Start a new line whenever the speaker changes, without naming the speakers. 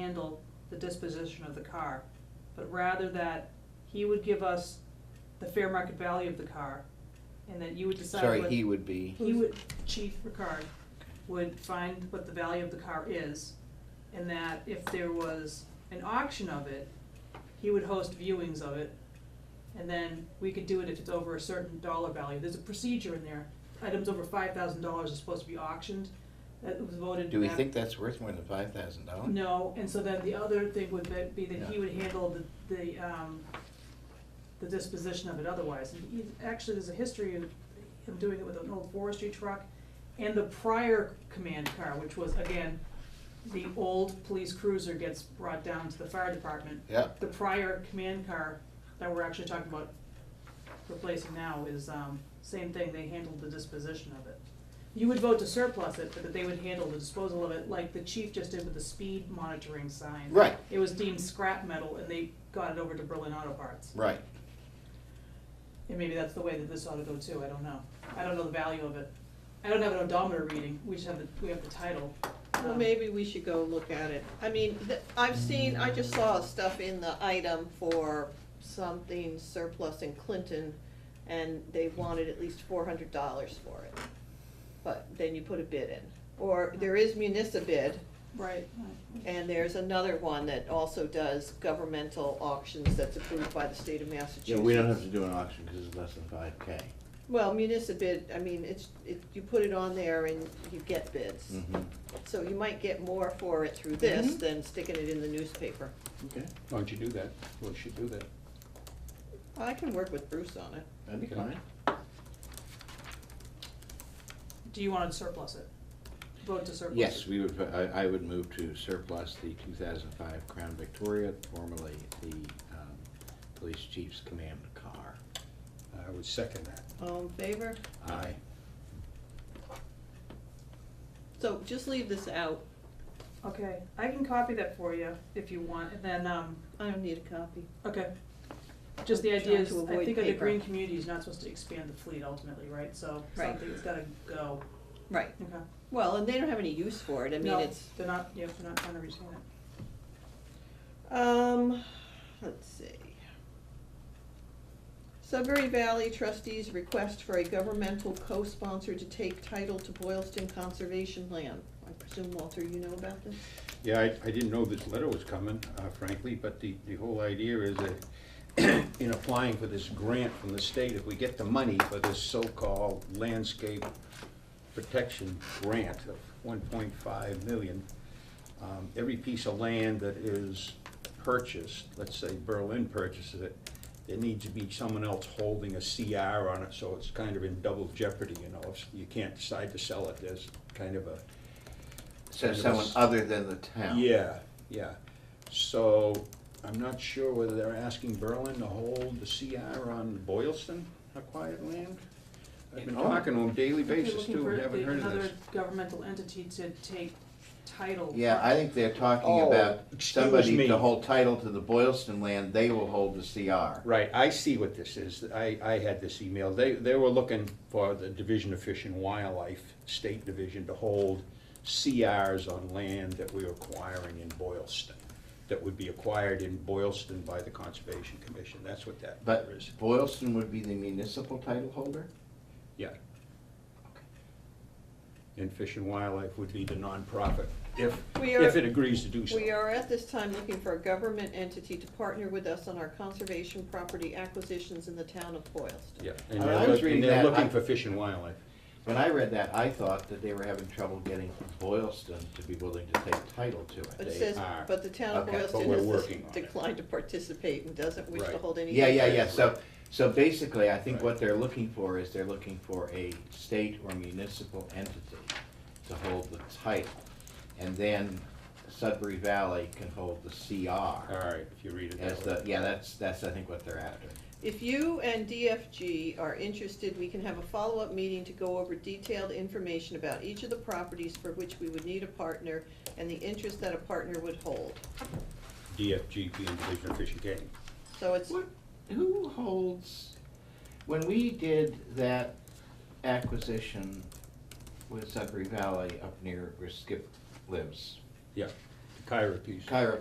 handle the disposition of the car, but rather that he would give us the fair market value of the car, and that you would decide
Sorry,
what-
he would be,
He would, Chief Ricard would find what the value of the car is, and that if there was an auction of it, he would host viewings of it, and then we could do it if it's over a certain dollar value. There's a procedure in there. Items over five thousand dollars are supposed to be auctioned. That was voted.
do we
back-
think that's worth more than five thousand dollars?
No, and so then the other thing would be- be that he
Yeah.
would handle the, the, um, the disposition of it otherwise. And he, actually, there's a history of him doing it with an old forestry truck and the prior command car, which was, again, the old police cruiser gets brought down to the fire department.
Yeah,
The prior command car that we're actually talking about replacing now is, um, same thing, they handled the disposition of it. You would vote to surplus it, but that they would handle the disposal of it, like the chief just did with the speed monitoring sign.
right,
It was deemed scrap metal and they got it over to Berlin Auto Parts.
right.
And maybe that's the way that this ought to go too, I don't know. I don't know the value of it. I don't have an odometer reading, we just have the, we have the title.
Well,
Um,
maybe we should go look at it. I mean, th- I've seen, I just saw stuff in the item for something surplus in Clinton, and they wanted at least four hundred dollars for it. But then you put a bid in. Or there is municipal bid,
Right. right.
and there's another one that also does governmental auctions that's approved by the state of Massachusetts.
Yeah, we don't have to do an auction because it's less than five K.
Well, municipal bid, I mean, it's, it, you put it on there and you get bids.
Mm-hmm.
So you might get more for it through this
Mhm.
than sticking it in the newspaper.
Okay,
Why don't you do that? We should do that.
I can work with Bruce on it.
that'd be
Okay.
fine.
Do you wanna surplus it? Vote to surplus it?
Yes, we would, I, I would move to surplus the two thousand five Crown Victoria, formerly the, um, police chief's command car.
I would second that.
All in favor?
Aye.
So just leave this out.
Okay, I can copy that for you if you want, and then, um,
I don't need a copy.
okay. Just the idea
Trying
is,
to
I
avoid
think under
paper.
green community, is not supposed to expand the fleet ultimately, right? So
Right.
something's gotta go,
Right.
okay?
Well, and they don't have any use for it. I mean,
No,
it's,
They're not, yeah, they're not trying to retain it.
um, let's see. Sudbury Valley trustees request for a governmental co-sponsor to take title to Boylston Conservation Land. I presume, Walter, you know about this?
Yeah, I, I didn't know this letter was coming, uh, frankly, but the, the whole idea is that in applying for this grant from the state, if we get the money for this so-called landscape protection grant of one point five million, um, every piece of land that is purchased, let's say Berlin purchases it, there needs to be someone else holding a CR on it, so it's kind of in double jeopardy, you know, if you can't decide to sell it, there's kind of a
So
Kind of
someone
us.
other than the town?
yeah, yeah. So I'm not sure whether they're asking Berlin to hold the CR on Boylston acquired land. I've been
Oh.
talking on a daily basis
They're looking
too,
for
haven't
the-
heard of this.
Another governmental entity to take title.
Yeah, I think they're talking
Oh,
about
excuse
somebody to
me.
hold title to the Boylston land, they will hold the CR.
Right, I see what this is. I, I had this email. They, they were looking for the Division of Fish and Wildlife, State Division, to hold CRs on land that we were acquiring in Boylston, that would be acquired in Boylston by the Conservation Commission. That's what that
But
is.
Boylston would be the municipal title holder?
Yeah. And Fish and Wildlife would be the nonprofit, if,
We are-
if it agrees to do so.
We are at this time looking for a government entity to partner with us on our conservation property acquisitions in the town of Boylston.
Yeah, and
I
they're,
was
look-
reading
and they're
that, I-
looking for Fish and Wildlife.
When I read that, I thought that they were having trouble getting Boylston to be willing to take title to
But
it.
it
They
says,
are.
but the town of
Okay, but
Boylston
we're
has
working on it.
declined to participate and doesn't wish to
Right.
hold any.
Yeah, yeah, yeah, so, so basically, I think
Right.
what they're looking for is they're looking for a state or municipal entity to hold the title. And then Sudbury Valley can hold the
All
CR
right, if you read it
as
that
the,
way.
yeah, that's, that's, I think, what they're after.
If you and DFG are interested, we can have a follow-up meeting to go over detailed information about each of the properties for which we would need a partner and the interest that a partner would hold.
DFG being Division of Fish and Game.
So it's,
What, who holds, when we did that acquisition with Sudbury Valley up near where Skip lives,
Yeah,
Kyra piece.
Kyra